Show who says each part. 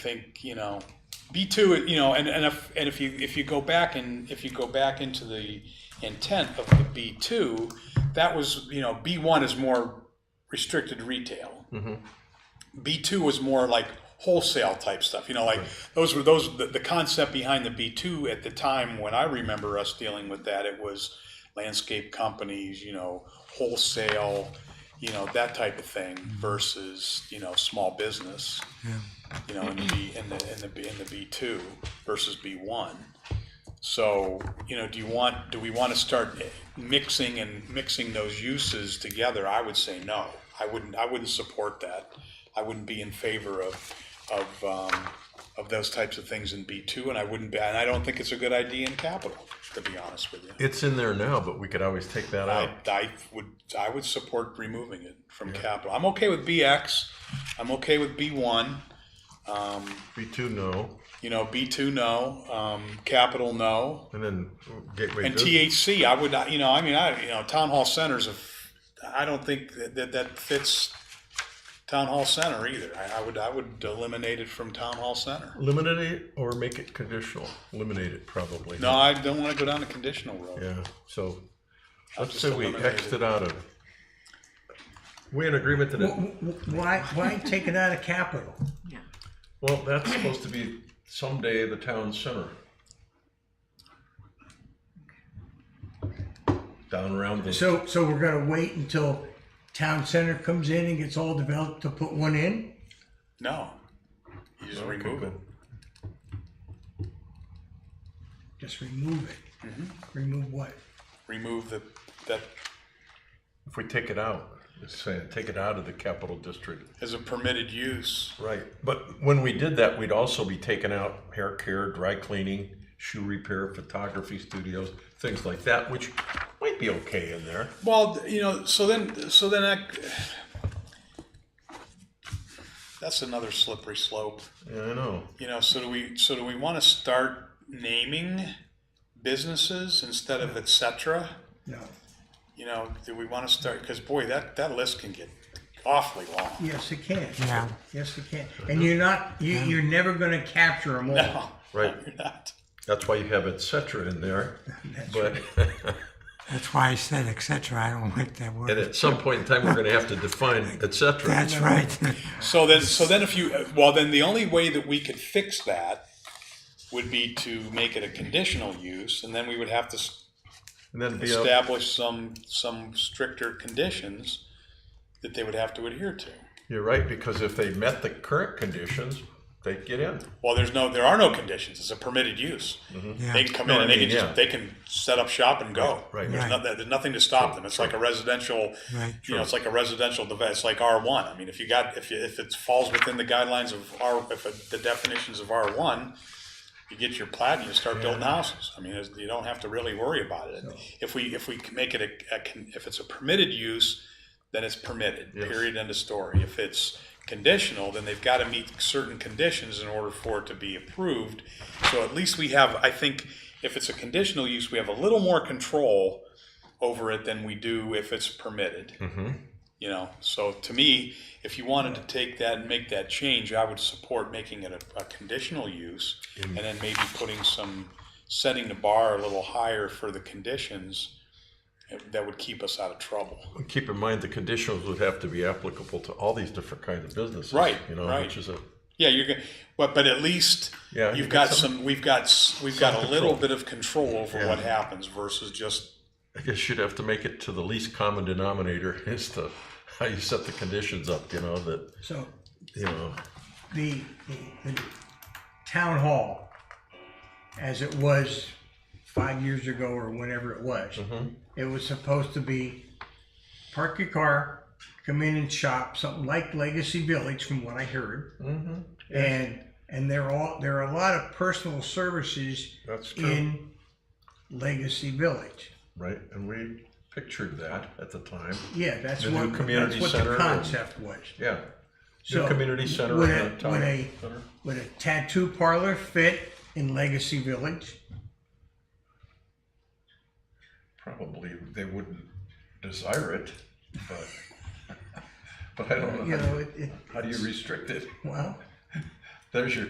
Speaker 1: think, you know, B two, you know, and, and if, and if you, if you go back and, if you go back into the intent of the B two, that was, you know, B one is more restricted retail. B two was more like wholesale type stuff, you know, like, those were, those, the, the concept behind the B two at the time, when I remember us dealing with that, it was landscape companies, you know, wholesale, you know, that type of thing versus, you know, small business you know, in the B, in the, in the, B- in the B two versus B one. So, you know, do you want, do we want to start mixing and mixing those uses together? I would say no. I wouldn't, I wouldn't support that. I wouldn't be in favor of, of, um, of those types of things in B two, and I wouldn't, be and I don't think it's a good idea in capital, to be honest with you.
Speaker 2: It's in there now, but we could always take that out.
Speaker 1: I, I would, I would support removing it from capital. I'm okay with BX, I'm okay with B one.
Speaker 2: B two, no,
Speaker 1: You know, B two, no. Um, capital, no.
Speaker 2: and then gateway.
Speaker 1: And
Speaker 2: business.
Speaker 1: THC, I would not. You know, I mean, I you know, town hall centers. Of, I don't think that that, that fits town hall center either. I, I would I would eliminate it from town hall center.
Speaker 2: Eliminate it or make it conditional. Eliminate it probably.
Speaker 1: No, I don't want to go down the conditional road.
Speaker 2: Yeah, so let's
Speaker 1: just
Speaker 2: say we
Speaker 1: eliminate
Speaker 2: Xed
Speaker 1: it.
Speaker 2: it out of. We in agreement to that?
Speaker 3: W- w- Why, why take it out of capital?
Speaker 2: Well, that's supposed to be someday the town center. Down around the.
Speaker 3: So, so we're gonna wait until town center comes in and gets all developed to put one in?
Speaker 1: No, you just
Speaker 2: Okay,
Speaker 1: remove it.
Speaker 2: good.
Speaker 3: Just remove it. Remove what?
Speaker 1: Remove the that
Speaker 2: If we take it out, it's saying, take it out of the capital district.
Speaker 1: as a permitted use.
Speaker 2: Right, but when we did that, we'd also be taking out hair care, dry cleaning, shoe repair, photography studios, things like that, which might be okay in there.
Speaker 1: Well, you know, so then, so then that, that's another slippery slope.
Speaker 2: Yeah, I know.
Speaker 1: You know, so do we, so do we want to start naming businesses instead of et cetera?
Speaker 3: No.
Speaker 1: You know, do we want to start, because boy, that, that list can get awfully long.
Speaker 3: Yes, it can.
Speaker 4: Yeah.
Speaker 3: Yes, it can. And you're not, you, you're never gonna capture them all.
Speaker 1: No,
Speaker 2: Right.
Speaker 1: You're not.
Speaker 2: That's why you have et cetera in there. But,
Speaker 4: That's why I said et cetera. I don't like that
Speaker 2: and
Speaker 4: word.
Speaker 2: at some point in time, we're gonna have to define et cetera.
Speaker 4: That's right.
Speaker 1: So then, so then if you, well, then the only way that we could fix that would be to make it a conditional use, and then we would have to s-
Speaker 2: And then be up,
Speaker 1: establish some, some stricter conditions that they would have to adhere to.
Speaker 2: you're right, because if they met the current conditions, they get in.
Speaker 1: Well, there's no, there are no conditions, it's a permitted use. They
Speaker 4: Yeah,
Speaker 1: can come
Speaker 2: Mm-hmm. No,
Speaker 1: in
Speaker 2: I
Speaker 1: and they can
Speaker 2: mean, yeah.
Speaker 1: just, they can set up shop and go.
Speaker 2: Right.
Speaker 1: There's
Speaker 4: Right.
Speaker 1: nothing, there's nothing to stop them, it's like a residential,
Speaker 4: Right.
Speaker 1: you know, it's like a residential device, it's like R one. I mean, if you got, if, you- if it falls within the guidelines of R, if it- the definitions of R one, you get your plat and you start building houses. I mean, it's- you don't have to really worry about it. If we, if we can make it a, a con- if it's a permitted use, then it's permitted, period, end of story. If it's conditional, then they've got to meet certain conditions in order for it to be approved. So at least we have, I think, if it's a conditional use, we have a little more control over it than we do if it's permitted. You know, so to me, if you wanted to take that and make that change, I would support making it a, a conditional use and then maybe putting some, setting the bar a little higher for the conditions that would keep us out of trouble.
Speaker 2: Keep in mind, the conditions would have to be applicable to all these different kinds of businesses.
Speaker 1: Right,
Speaker 2: You know,
Speaker 1: right.
Speaker 2: which is a,
Speaker 1: Yeah, you're gonna, but, but at least
Speaker 2: Yeah,
Speaker 1: you've
Speaker 2: you've got
Speaker 1: got some, we've got, s- we've got a little bit of control over what happens versus just,
Speaker 2: I guess you'd have to make it to the least common denominator as to how you set the conditions up, you know, that,
Speaker 3: So
Speaker 2: you know,
Speaker 3: the, the, the town hall, as it was five years ago or whenever it was,
Speaker 2: Mm-hmm.
Speaker 3: it was supposed to be park your car, come in and shop, something like Legacy Village, from what I heard.
Speaker 2: Mm-hmm.
Speaker 3: And, and there are, there are a lot of personal services
Speaker 2: that's true,
Speaker 3: in Legacy Village.
Speaker 2: right? And we pictured that at the time.
Speaker 3: Yeah, that's
Speaker 2: The new
Speaker 3: what,
Speaker 2: community
Speaker 3: that's what
Speaker 2: center
Speaker 3: the
Speaker 2: and-
Speaker 3: concept was.
Speaker 2: Yeah. New
Speaker 3: So,
Speaker 2: community center
Speaker 3: would
Speaker 2: and
Speaker 3: a-
Speaker 2: a town
Speaker 3: would a-
Speaker 2: center.
Speaker 3: Would a tattoo parlor fit in Legacy Village?
Speaker 2: Probably they wouldn't desire it, but, but I don't
Speaker 3: You
Speaker 2: know.
Speaker 3: know, it, it,
Speaker 2: How do you restrict it?
Speaker 3: well.
Speaker 2: There's your